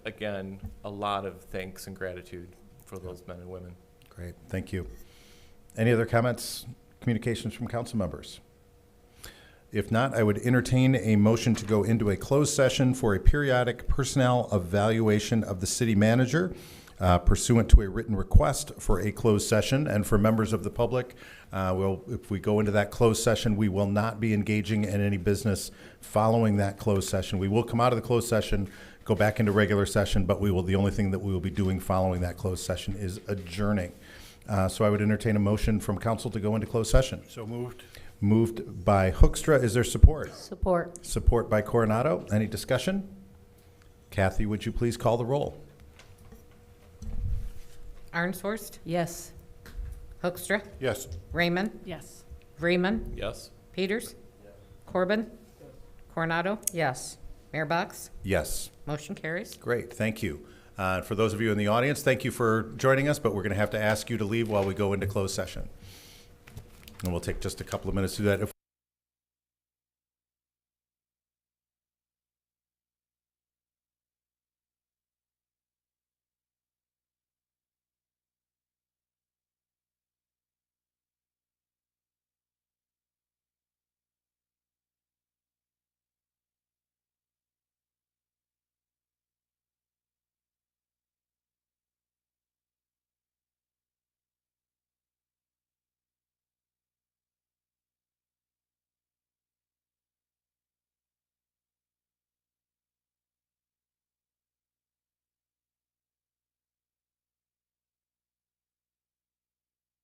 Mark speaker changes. Speaker 1: again, a lot of thanks and gratitude for those men and women.
Speaker 2: Great, thank you. Any other comments, communications from council members? If not, I would entertain a motion to go into a closed session for a periodic personnel evaluation of the city manager uh, pursuant to a written request for a closed session. And for members of the public, uh, well, if we go into that closed session, we will not be engaging in any business following that closed session. We will come out of the closed session, go back into regular session, but we will, the only thing that we will be doing following that closed session is adjourning. Uh, So I would entertain a motion from council to go into closed session.
Speaker 3: So moved.
Speaker 2: Moved by Hookstra. Is there support?
Speaker 4: Support.
Speaker 2: Support by Coronado. Any discussion? Kathy, would you please call the roll?
Speaker 5: Arnsworst,
Speaker 4: Yes.
Speaker 5: Hoekstra,
Speaker 2: Yes.
Speaker 5: Raymond,
Speaker 4: Yes.
Speaker 5: Vreeman,
Speaker 1: Yes?
Speaker 5: Peters, Corbin, Coronado,
Speaker 4: Yes.
Speaker 5: Mayor Box.
Speaker 2: Yes.
Speaker 5: Motion carries.
Speaker 2: Great, thank you. Uh, For those of you in the audience, thank you for joining us, but we're going to have to ask you to leave while we go into closed session. And we'll take just a couple of minutes to do that. If we